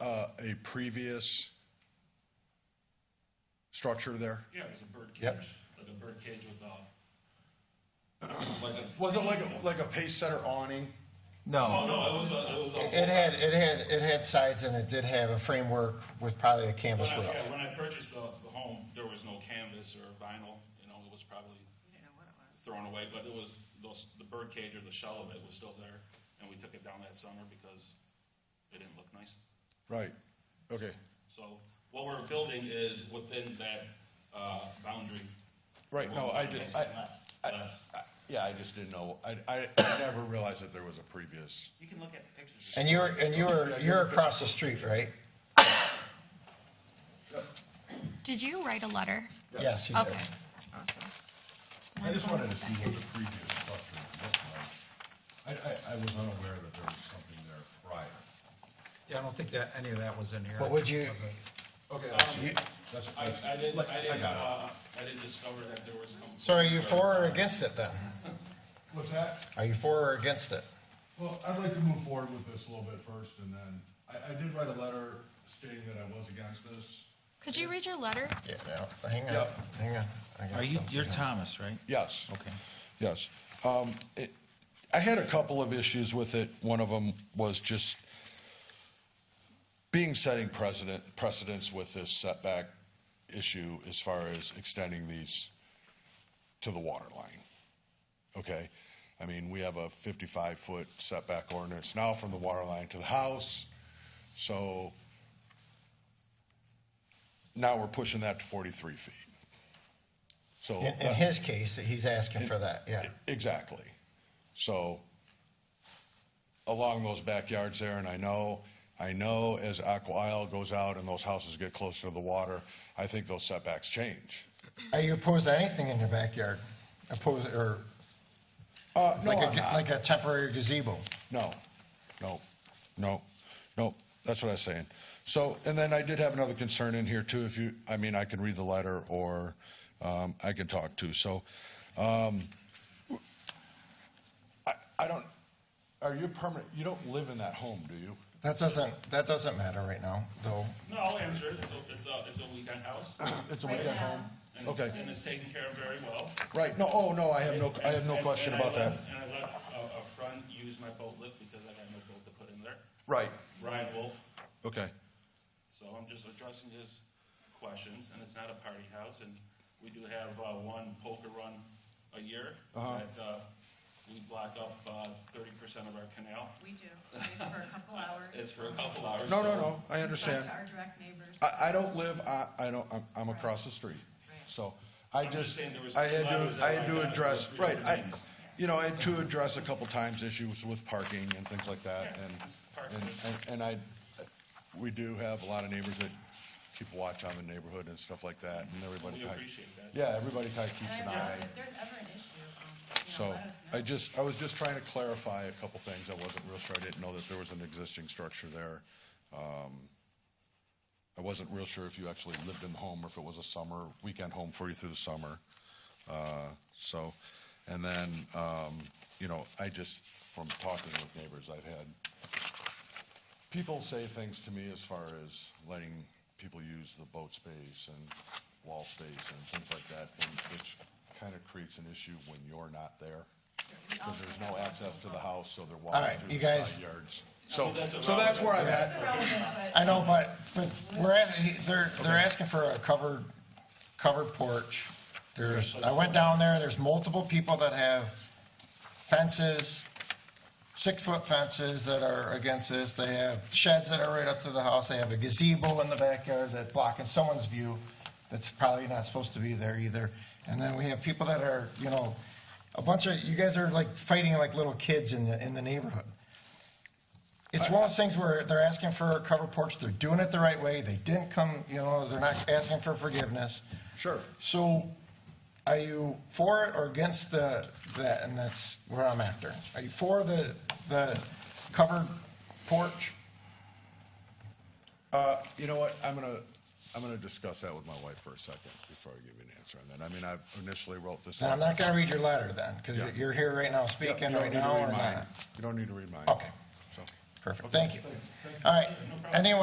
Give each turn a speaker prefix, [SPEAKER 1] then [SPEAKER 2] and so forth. [SPEAKER 1] uh, a previous structure there?
[SPEAKER 2] Yeah, it was a bird
[SPEAKER 1] Yep.
[SPEAKER 2] cage, like a bird cage with a. like a-
[SPEAKER 1] Was it like, a- like a pace setter awning?
[SPEAKER 2] Oh,
[SPEAKER 3] No,
[SPEAKER 2] no, it was a, it was a.
[SPEAKER 4] It had, it had, it had sides and it did have a framework with probably a
[SPEAKER 2] When
[SPEAKER 4] canvas
[SPEAKER 2] I, yeah,
[SPEAKER 4] roof.
[SPEAKER 2] when I purchased the, the home, there was no canvas or vinyl, you know, it was probably thrown away, but it was, those, the bird cage or the shell of it was still there, and we took it down that summer because it didn't look nice.
[SPEAKER 1] Right, okay,
[SPEAKER 2] So what we're building is within that, uh, boundary.
[SPEAKER 1] right, no, I did, I,
[SPEAKER 2] Less,
[SPEAKER 1] I-
[SPEAKER 2] less.
[SPEAKER 1] I- yeah, I just didn't know, I, I I never realized that there was a previous.
[SPEAKER 5] You can look at the pictures.
[SPEAKER 4] And you were, and you were, you're across the street, right?
[SPEAKER 6] Did you write a letter?
[SPEAKER 4] Yes, you
[SPEAKER 6] Okay,
[SPEAKER 4] did.
[SPEAKER 6] awesome.
[SPEAKER 1] I just wanted to see what the previous structure looked like. I, I, I was unaware that there was something there prior.
[SPEAKER 3] yeah, I don't think that, any of that was in here.
[SPEAKER 4] But would you-
[SPEAKER 3] Was it?
[SPEAKER 1] Okay,
[SPEAKER 2] Um,
[SPEAKER 1] that's,
[SPEAKER 2] I, I didn't,
[SPEAKER 1] like,
[SPEAKER 2] I didn't,
[SPEAKER 1] got it.
[SPEAKER 2] uh, I didn't discover that there was. some-
[SPEAKER 4] So are you for or against it then?
[SPEAKER 7] What's that?
[SPEAKER 4] Are you for or against it?
[SPEAKER 7] Well, I'd like to move forward with this a little bit first, and then, I, I did write a letter stating that I was against this.
[SPEAKER 6] Could you read your letter?
[SPEAKER 4] Yeah, no, hang on,
[SPEAKER 1] Yep.
[SPEAKER 4] hang on. I got
[SPEAKER 3] Are you,
[SPEAKER 4] something
[SPEAKER 3] you're
[SPEAKER 4] here.
[SPEAKER 3] Thomas, right?
[SPEAKER 1] Yes.
[SPEAKER 3] Okay.
[SPEAKER 1] Yes. Um, it, I had a couple of issues with it. One of them was just being setting precedent, precedence with this setback issue as far as extending these to the water line. Okay? I mean, we have a 55 foot setback ordinance now from the water line to the house. So now we're pushing that to 43 feet. So
[SPEAKER 4] In, in
[SPEAKER 1] that-
[SPEAKER 4] his case, he's asking for that, yeah.
[SPEAKER 1] Exactly. So along those backyards there, and I know, I know as Aqua Isle goes out and those houses get closer to the water, I think those setbacks change.
[SPEAKER 4] Are you opposed to anything in your backyard? Opposed, or
[SPEAKER 1] Uh, no,
[SPEAKER 4] like
[SPEAKER 1] I'm
[SPEAKER 4] a,
[SPEAKER 1] not.
[SPEAKER 4] like a temporary gazebo?
[SPEAKER 1] No, no, no, no, that's what I was saying. So, and then I did have another concern in here too, if you, I mean, I can read the letter or um, I can talk too, so. um, I, I don't, are you permanent, you don't live in that home, do you?
[SPEAKER 4] That doesn't, that doesn't matter right now, though.
[SPEAKER 2] No, I'll answer it, it's a, it's a, it's a weekend house.
[SPEAKER 1] It's a weekend home?
[SPEAKER 2] And it's-
[SPEAKER 1] Okay,
[SPEAKER 2] And it's taken care of very well.
[SPEAKER 1] right, no, oh, no, I have no, I have no
[SPEAKER 2] And- and-
[SPEAKER 1] question
[SPEAKER 2] and I
[SPEAKER 1] about that.
[SPEAKER 2] let- And I let uh, a, a friend use my boat lift because I had no boat to put in there,
[SPEAKER 1] Right,
[SPEAKER 2] Ryan Wolf.
[SPEAKER 1] okay,
[SPEAKER 2] So I'm just addressing his questions, and it's not a party house, and we do have, uh, one poker run a year.
[SPEAKER 1] Uh-huh.
[SPEAKER 2] That, uh, we block up, uh, thirty percent of our canal.
[SPEAKER 8] We do, it's for a couple hours.
[SPEAKER 2] It's for a couple hours.
[SPEAKER 1] no,
[SPEAKER 2] so-
[SPEAKER 1] no, no, I understand.
[SPEAKER 8] Talk to our direct neighbors.
[SPEAKER 1] I, I don't live, I, I don't, I'm, I'm across the street, so I
[SPEAKER 2] I'm just
[SPEAKER 1] just,
[SPEAKER 2] saying there was
[SPEAKER 1] I had
[SPEAKER 2] letters
[SPEAKER 1] to,
[SPEAKER 2] that
[SPEAKER 1] I
[SPEAKER 2] I
[SPEAKER 1] had to
[SPEAKER 2] got that
[SPEAKER 1] address,
[SPEAKER 2] were
[SPEAKER 1] right, I,
[SPEAKER 2] things.
[SPEAKER 1] you know, I had to address a couple times issues with parking and things like that,
[SPEAKER 2] Yeah, it's parking.
[SPEAKER 1] and, and, and- and I, we do have a lot of neighbors that keep a watch on the neighborhood and stuff like that, and everybody
[SPEAKER 2] We
[SPEAKER 1] kinda-
[SPEAKER 2] appreciate that.
[SPEAKER 1] Yeah, everybody kinda keeps an
[SPEAKER 8] And I-
[SPEAKER 1] eye,
[SPEAKER 8] If there's ever an issue, um, you know,
[SPEAKER 1] so,
[SPEAKER 8] let us know.
[SPEAKER 1] I just, I was just trying to clarify a couple things, I wasn't real sure, I didn't know that there was an existing structure there. Um, I wasn't real sure if you actually lived in the home or if it was a summer, weekend home for you through the summer. Uh, So, and then, um, you know, I just, from talking with neighbors, I've had people say things to me as far as letting people use the boat space and wall space and things like that, and which kind of creates an issue when you're not there. Because there's no access to the house, so they're walking
[SPEAKER 4] right,
[SPEAKER 1] through
[SPEAKER 4] you
[SPEAKER 1] the
[SPEAKER 4] guys-
[SPEAKER 1] side yards. So,
[SPEAKER 2] mean, that's a
[SPEAKER 1] so that's
[SPEAKER 2] relevant-
[SPEAKER 1] where I'm at.
[SPEAKER 8] It's irrelevant,
[SPEAKER 4] I know, but, but we're at, he- they're, they're asking for a covered, covered porch. There's, I went down there, there's multiple people that have fences, six-foot fences that are against this. They have sheds that are right up to the house. They have a gazebo in the backyard that's blocking someone's view that's probably not supposed to be there either. And then we have people that are, you know, a bunch of, you guys are like fighting like little kids in the, in the neighborhood. It's one of those things where they're asking for a covered porch, they're doing it the right way, they didn't come, you know, they're not asking for forgiveness.
[SPEAKER 1] Sure.
[SPEAKER 4] So are you for it or against the, that, and that's what I'm after? Are you for the, the covered porch?
[SPEAKER 1] Uh, you know what, I'm gonna, I'm gonna discuss that with my wife for a second before I give you an answer on that. I mean, I initially wrote this.
[SPEAKER 4] Now, I'm
[SPEAKER 1] out.
[SPEAKER 4] not gonna read your letter then,
[SPEAKER 1] Yeah.
[SPEAKER 4] because you're here right now
[SPEAKER 1] Yeah, you
[SPEAKER 4] speaking
[SPEAKER 1] don't
[SPEAKER 4] right
[SPEAKER 1] need to
[SPEAKER 4] now
[SPEAKER 1] read
[SPEAKER 4] or
[SPEAKER 1] mine.
[SPEAKER 4] not.
[SPEAKER 1] You don't need to read mine.
[SPEAKER 4] Okay.
[SPEAKER 1] So.
[SPEAKER 4] Perfect, thank you. All right, anyone